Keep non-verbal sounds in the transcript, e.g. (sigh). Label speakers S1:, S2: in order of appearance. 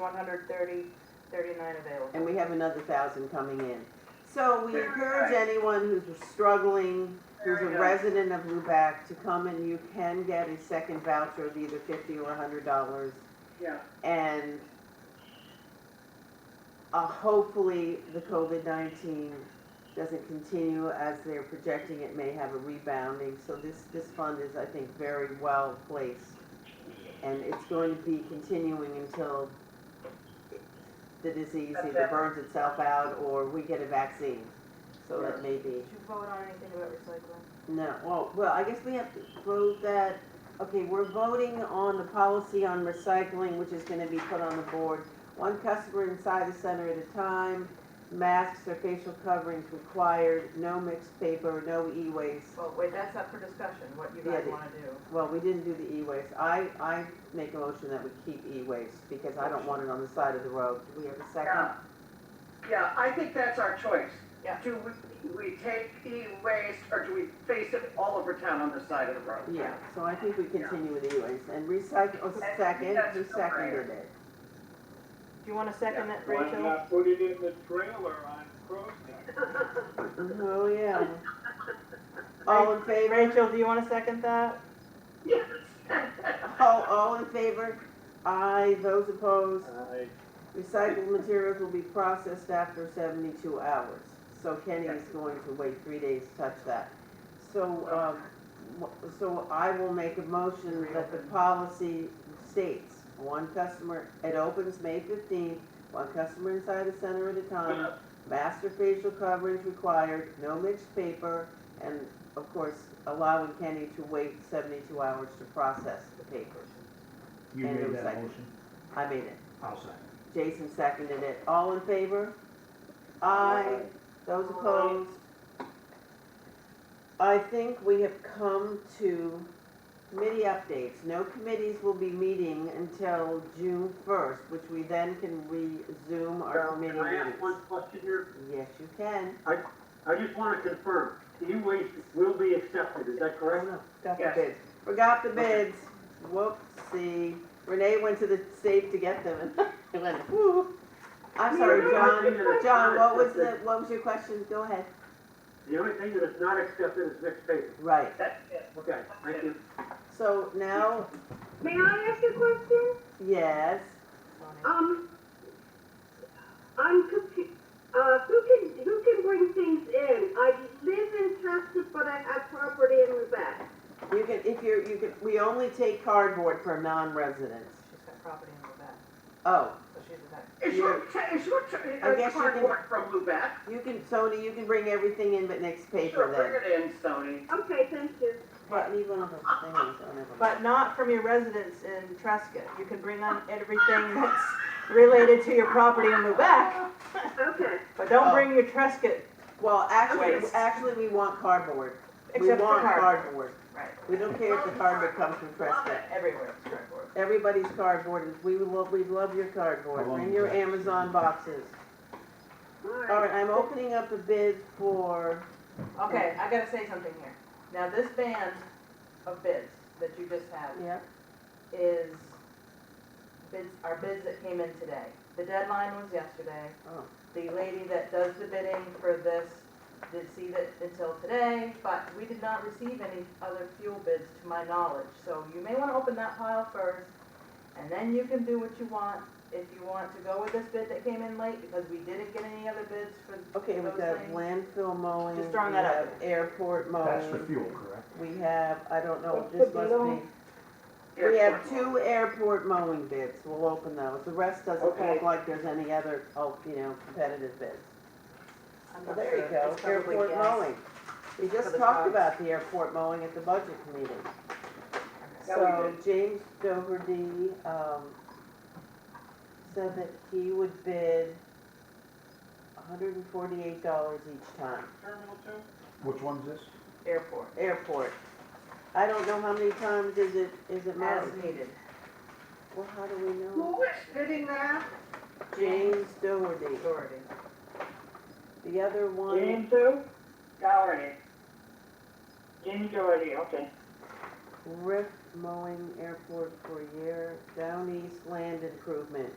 S1: one hundred thirty, thirty-nine available.
S2: and we have another thousand coming in. So we
S3: Very
S2: encourage
S3: nice.
S2: anyone who's struggling, who's
S3: Very
S2: a
S3: nice.
S2: resident of Lubac, to come and you can get a second voucher of either fifty or hundred dollars.
S3: yeah.
S2: And uh, hopefully, the COVID-19 doesn't continue as they're projecting it may have a rebounding. So this, this fund is, I think, very well placed. And it's going to be continuing until the disease either burns itself out or we get a vaccine. So that may be,
S1: Did you vote on anything about recycling?
S2: no, well, well, I guess we have to vote that, okay, we're voting on the policy on recycling, which is gonna be put on the board. One customer inside the center at a time, masks or facial coverings required, no mixed paper, no e-waste.
S1: Well, Oh, wait, that's up for discussion, what you
S2: Yeah,
S1: guys
S2: the-
S1: wanna do.
S2: Well, we didn't do the e-waste. I, I make a motion that we keep e-waste because I don't want it on the side of the road. Do we have a second?
S3: Yeah. Yeah, I think that's our choice.
S1: Yeah.
S3: Do we, we take e-waste or do we face it all over town on the side of the road?
S2: Yeah, so I think we continue with e-waste and recycle, oh, second,
S3: that's
S2: who
S3: a no-brainer.
S2: seconded it?
S1: Do you wanna second
S3: Yeah.
S1: that,
S4: Why
S1: Rachel?
S4: not put it in the trailer on Cross
S2: Oh, yeah. All in favor?
S1: Rachel, do you wanna second that?
S3: (laughs) Yes.
S2: All, all in favor? Aye, those opposed?
S4: I,
S2: Recycled materials will be processed after seventy-two hours. So Kenny is going to wait three days to touch that. So, um, wh- so I will make a motion that the policy states, one customer, it opens May fifteenth, one customer inside the center at a time, master facial coverage required, no mixed paper, and of course, allowing Kenny to wait seventy-two hours to process the papers.
S5: You
S2: And it
S5: made
S2: was
S5: that
S2: second.
S5: motion?
S2: I made it.
S5: I'll second.
S2: Jason seconded it. All in favor? Aye. Those opposed? I think we have come to committee updates. No committees will be meeting until June first, which we then can resume our committee
S4: Can I ask one
S2: meetings.
S4: question here?
S2: Yes, you can.
S4: I just want to confirm, e-waste will be accepted, is that
S2: Oh,
S4: correct?
S2: no, Got the
S3: Yes.
S2: bids. Forgot the
S4: Okay.
S2: bids. Whoopsie. Renee went to the safe to get them (laughs) and I went, whoo. I'm sorry, John. John, what was the, what was your question? Go ahead.
S4: The only thing that is not accepted is mixed paper.
S2: Right.
S3: That's it.
S4: Okay, thank you.
S2: So now,
S6: May I ask a question?
S2: yes,
S6: Um, I'm confused. Uh, who can, who can bring things in? I live in Chester, but I have property in Lubec.
S2: you can, if you're, you can, we only take cardboard for non-residents.
S1: She's got property in Quebec,
S2: Oh,
S1: so she's a vet.
S3: Is your, ta- is your, ta-
S2: I guess
S3: uh,
S2: you can-
S3: cardboard from Lubec?
S2: you can, Sony, you can bring everything in but next
S3: Sure,
S2: paper
S3: bring it in, Sony.
S6: Okay, thank you.
S2: then. But leave one of those things, oh, never
S1: But
S2: mind.
S1: not from your residence in Trescott. You can bring on everything that's related to your property in Lubec,
S6: Okay.
S1: but don't bring your Trescott
S2: Well, actually,
S1: Waste.
S2: actually, we want cardboard. We
S1: except for
S2: want
S1: cardboard.
S2: cardboard.
S1: Right,
S2: We don't care if the cardboard comes from Prescott.
S1: everywhere it's cardboard.
S2: Everybody's cardboard is, we love, we love your cardboard.
S5: How long
S2: Bring
S5: is
S2: your
S5: that?
S2: Amazon boxes. All right, I'm opening up the bid for,
S1: Okay, I gotta say something here. Now, this band of bids that you just had
S2: yeah,
S1: is bids, are bids that came in today. The deadline was yesterday.
S2: Oh.
S1: The lady that does the bidding for this did see it until today, but we did not receive any other fuel bids to my knowledge. So you may wanna open that pile first, and then you can do what you want. If you want to go with this bid that came in late, because we didn't get any other bids for,
S2: okay, we
S1: Those
S2: got
S1: things.
S2: landfill mowing.
S1: Just throwing
S2: we
S1: that out
S2: have
S1: there.
S2: Airport mowing.
S5: That's for fuel, correct?
S2: We have, I don't know,
S1: What's
S2: this
S1: the
S2: must
S1: deal?
S2: be, we have two airport mowing bids, we'll open those, the rest doesn't
S3: Okay.
S2: look like there's any other, oh, you know, competitive bids.
S1: I'm not
S2: Well, there you
S1: sure,
S2: go,
S1: it's probably
S2: airport
S1: gas.
S2: mowing. We
S1: For
S2: just
S1: the
S2: talked
S1: dogs.
S2: about the airport mowing at the budget meeting.
S3: Yeah, we
S2: So James Doherty, um, said that he would bid hundred and forty-eight dollars each time,
S4: Terminal two?
S5: Which one's this?
S1: Airport,
S2: airport. I don't know how many times is it, is it
S1: as
S2: mowed?
S1: needed.
S2: Well, how do we know?
S3: Who is bidding that?
S2: James Doherty.
S1: Authority.
S2: The other one,
S3: two? Dougherty. Jamie Dougherty, okay.
S2: Riff Mowing Airport for a year, Down East Land Improvement.